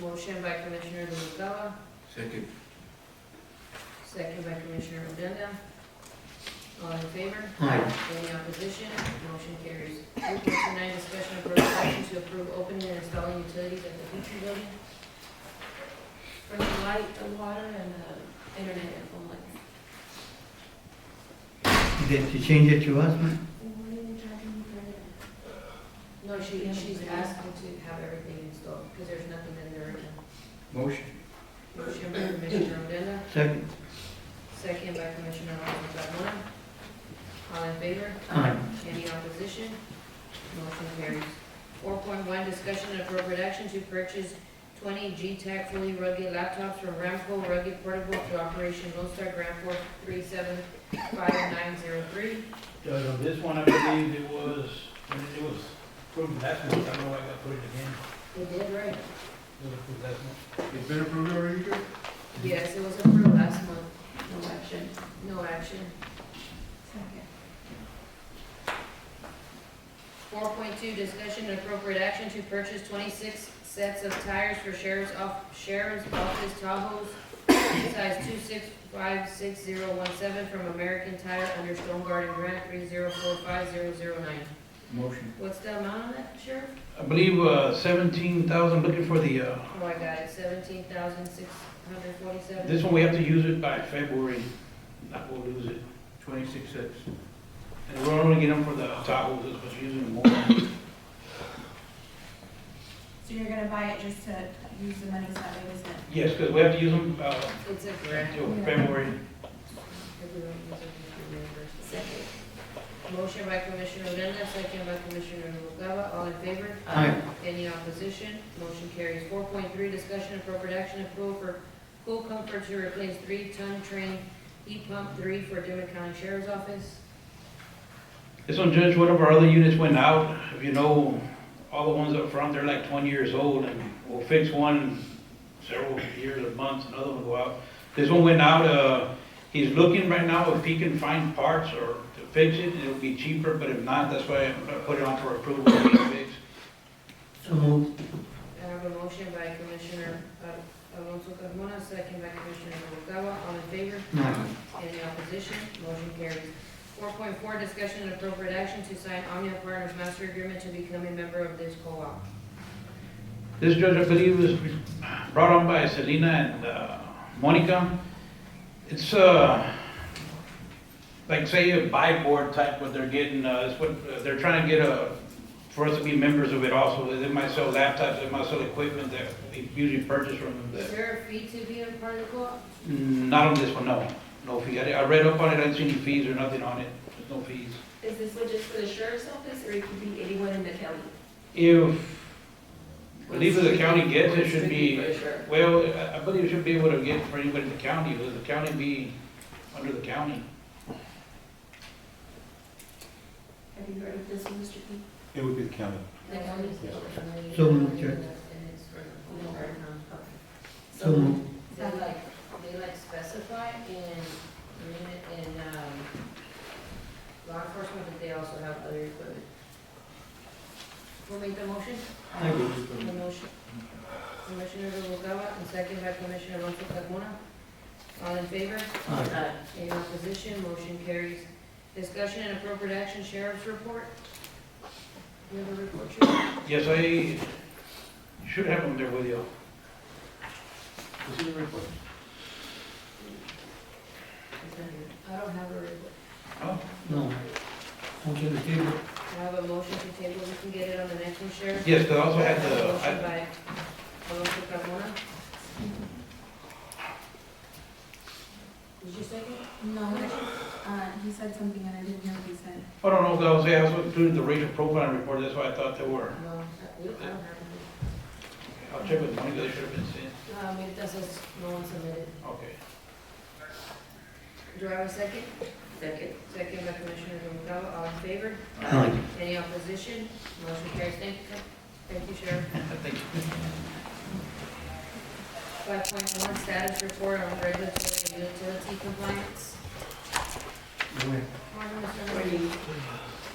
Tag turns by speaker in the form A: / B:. A: Motion by Commissioner Noguera,
B: Second.
A: second by Commissioner Odena. All in favor?
B: Aye.
A: Any opposition? Motion carries. Three point nine, discussion of appropriate action to approve opening and installing utilities at the Beacon Building for the light, the water, and uh, the internet and phone lines.
C: Did you change it to us, man?
A: No, she, she's asking to have everything installed, because there's nothing in there.
C: Motion.
A: Motion by Commissioner Odena,
C: Second.
A: second by Commissioner Alonso Carmona. All in favor?
C: Aye.
A: Any opposition? Motion carries. Four point one, discussion and appropriate action to purchase twenty G-Tech fully rugged laptops from Ramco Rugged Portable to Operation Lone Star Grant four three seven five nine zero three.
D: Judge, on this one, I believe it was, when it was approved last month, I don't know why I got put it again,
A: They did, right?
D: it was approved last month.
B: It's been approved already, Judge?
A: Yes, it was approved last month.
E: No action.
A: No action. Four point two, discussion and appropriate action to purchase twenty-six sets of tires for sheriff's off, sheriff's office Tahoe's size two six five six zero one seven from American Tire under Stone Garden Grant three zero four five zero zero nine.
C: Motion.
A: What's the amount on that, Sheriff?
D: I believe, uh, seventeen thousand, looking for the, uh,
A: Oh, I got it, seventeen thousand six hundred forty-seven.
D: this one, we have to use it by February, not we'll lose it.
B: Twenty-six sets.
D: And we're only getting them for the Tahoe, that's what's using more.
E: So you're gonna buy it just to use the money, so that way it isn't.
D: Yes, because we have to use them, uh,
A: It's a grant.
D: until February.
A: If we don't use it, we can reimburse it. Motion by Commissioner Odena, second by Commissioner Noguera, all in favor?
C: Aye.
A: Any opposition? Motion carries. Four point three, discussion and appropriate action approval for pool comfort to replace three-ton train heat pump three for Dimmitt County Sheriff's Office.
D: This one, Judge, one of our other units went out. If you know, all the ones up front, they're like 20 years old, and we'll fix one several years or months, another one will go out. This one went out, uh, he's looking right now if he can find parts or to fix it, it'll be cheaper, but if not, that's why I put it on for approval to fix.
C: So moved.
A: I have a motion by Commissioner uh, Alonso Carmona, second by Commissioner Noguera, all in favor?
C: Aye.
A: Any opposition? Motion carries. Four point four, discussion and appropriate action to sign Omnia Partners Master Agreement to become a member of this co-op.
D: This judge, I believe, was brought on by Selena and uh, Monica. It's, uh, like, say, a buy board type, what they're getting, uh, is what, uh, they're trying to get a, for us to be members of it also. They might sell laptops, they might sell equipment that we usually purchase from them.
A: Is
D: that-
A: there a fee to be a part of the co-op?
D: Mm, Not on this one, no. No fee. I I read up on it, I didn't see any fees or nothing on it. There's no fees.
F: Is this one just for the sheriff's office, or it could be anyone in the county?
D: If, I believe if the county gets it, it should be
F: Or it's strictly for the sheriff?
D: Well, I- I believe you should be able to get for anybody in the county, does the county be under the county?
F: Have you heard of this one, Mr. P?
G: It would be the county.
A: The county's-
C: So moved, Judge.
A: And it's for the whole area, huh?
C: So moved.
A: They like, they like specify in, in, um, law enforcement that they also have other equipment. Who made the motion?
C: I will.
A: The motion. Commissioner Noguera, and second by Commissioner Alonso Carmona. All in favor?
C: Aye.
A: Any opposition, motion carries. Discussion and appropriate action, sheriff's report. You have a report, Sheriff?
D: Yes, I should have them there with you.
B: This is a report.
A: I don't have a report.
D: Oh,
C: No. Motion to table.
A: I have a motion to table, we can get it on the next one, Sheriff.
D: yes, because I also had the,
A: Motion
D: I-
A: by Alonso Carmona. Did you second?
E: No, uh, he said something and I didn't hear what he said.
D: I don't know, because I was, I also included the racial profiling report, that's why I thought they were.
A: No, we don't have
D: I'll check with Monica, they should have been sent.
A: it. Um, it doesn't, no one submitted.
D: Okay.
A: Do I have a second?
F: Second.
A: Second by Commissioner Noguera, all in favor?
C: Aye.
A: Any opposition? Motion carries. Thank you, thank you, Sheriff.
D: Thank you.
A: Five point one, status report on regulatory and utility compliance.
C: Aye.
A: Morning, Mr. Morning.